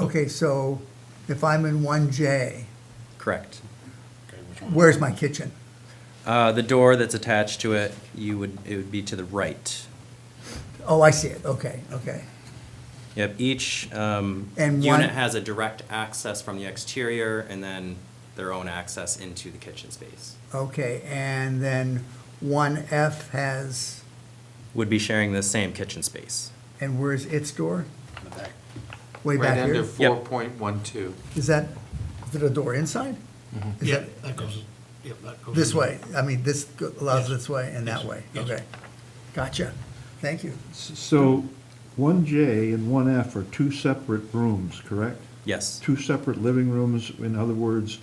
Okay, so if I'm in one J, Correct. where's my kitchen? Uh, The door that's attached to it, you would, it would be to the right. Oh, I see it, okay, okay. Yep, each um, And one- unit has a direct access from the exterior and then their own access into the kitchen space. Okay, and then one F has, Would be sharing the same kitchen space. and where's its door? in the back. Way back Right under here? Yep. four point one two. Is that, is it a door inside? Is Yeah, that that goes, yeah, that goes. this in. way? I mean, this go- allows this way and that Yes, way? yes. Okay. Gotcha. Thank you. So, one J and one F are two separate rooms, correct? Yes, Two separate living rooms, in other words,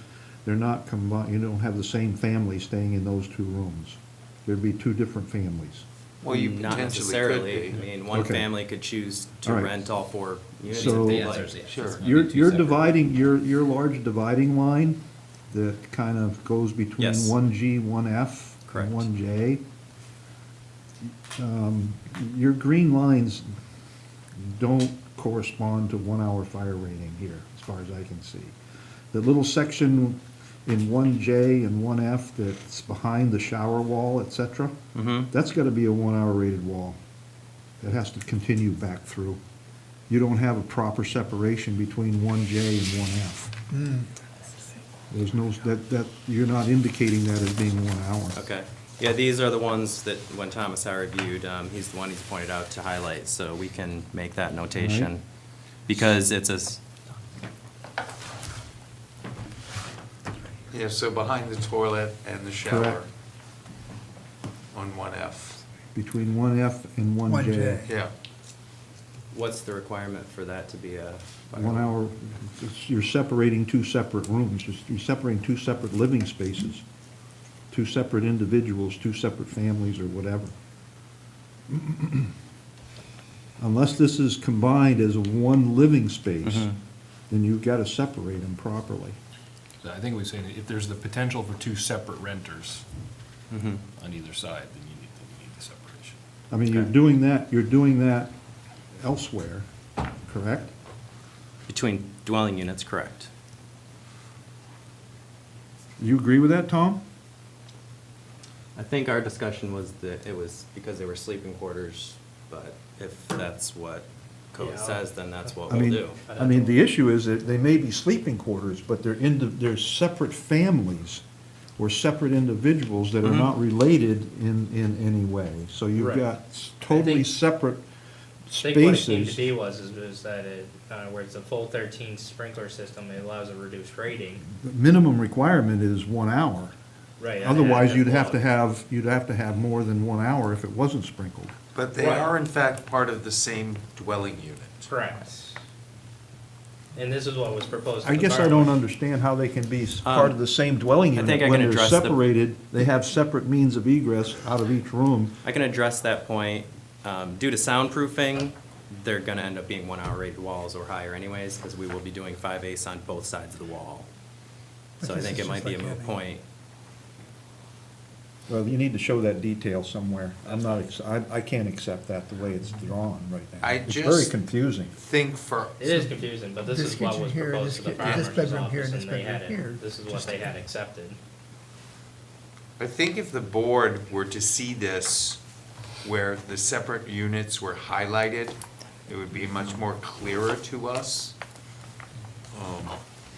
they're not combined, you don't have the same family staying in those two rooms. There'd be two different families. Well, you not potentially could necessarily. I be. mean, one Okay. family could choose to All right. rent all four units So- if The they answer like. is yes. Sure. Maybe Your, two your separate- dividing, your, your large dividing line that kind of goes between Yes. one G, one F, Correct. and one J. um, Your green lines don't correspond to one hour fire rating here, as far as I can see. The little section in one J and one F that's behind the shower wall, et cetera, Mm-hmm. that's gotta be a one hour rated wall. It has to continue back through. You don't have a proper separation between one J and one F. There's no, that, that, you're not indicating that as being one hour. Okay. Yeah, these are the ones that when Thomas I reviewed, um, he's the one he's pointed out to highlight, so we can make that notation. Because it's a, s- Yeah, so behind the toilet and the shower Correct. on one F, Between one F and one One J. J. yeah. what's the requirement for that to be a? One hour, it's- you're separating two separate rooms, You're- you're separating two separate living spaces, two separate individuals, two separate families or whatever. Unless this is combined as one living space, then you've got to separate them properly. So I think we say that if there's the potential for two separate renters Mhm. on either side, then you need, then you need the separation. I mean, you're Okay. doing that, you're doing that elsewhere, correct? Between dwelling units, correct. You agree with that, Tom? I think our discussion was that it was because they were sleeping quarters, but if that's what code Yeah. says, then that's what I we'll mean, do. I mean, the issue is that they may be sleeping quarters, but they're in, they're separate families or separate individuals that are not related in, in any way. So you've Mm-hmm. Right. got s- totally think- separate I think what it needed to spaces. be was, is was that it, uh, where it's a full thirteen sprinkler system, it allows a reduced rating. The Minimum requirement is one hour. Right. I- Otherwise, I- you'd have to have, you'd have to have more than one hour if it wasn't sprinkled. But they Right. are in fact part of the same dwelling unit. Correct. And this is what was proposed. to I the guess I don't borough. understand how they can be s- part of the same dwelling Um, I unit. think I can address the- When they're separated, they have separate means of egress out of each room. I can address that point. Um, due to soundproofing, they're gonna end up being one-hour rated walls or higher anyways, because we will be doing five eighths on both sides of the wall. So I But this think is it might just be a like moot having- point. Well, you need to show that detail somewhere. I'm not, ex- I, I can't accept that the way it's drawn right now. I It's very just- confusing. Think for, It is confusing, but this This is what kitchen was here, proposed this to the ki- this farmer's bedroom here, and office, and this they bedroom had here, it, this is what just- they had accepted. I think if the board were to see this where the separate units were highlighted, it would be much more clearer to us. Um,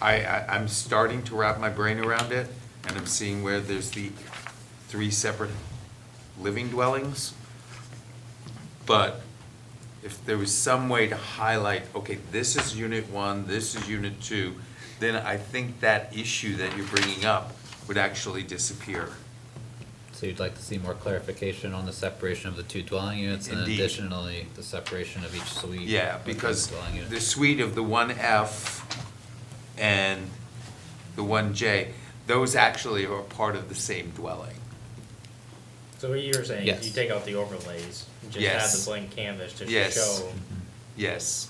I, I, I'm starting to wrap my brain around it, and I'm seeing where there's the three separate living dwellings. But if there was some way to highlight, okay, this is unit one, this is unit two, then I think that issue that you're bringing up would actually disappear. So you'd like to see more clarification on the separation of the two dwelling units and then Indeed. additionally the separation of each suite? Yeah, within the because dwelling unit. the suite of the one F and the one J, those actually are part of the same dwelling. So what you were saying, is you Yes. take out the overlays, and just have Yes. the blank canvas just to Yes. show. Yes.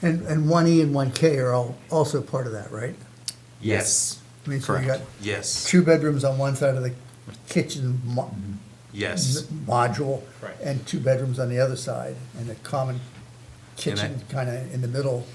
And, and one E and one K are all, also part of that, right? Yes. I mean, so you got Correct. Yes. two bedrooms on one side of the kitchen mo- Yes. m- module. Right. And two bedrooms on the other side, and a common And I- kitchen kind of in the middle.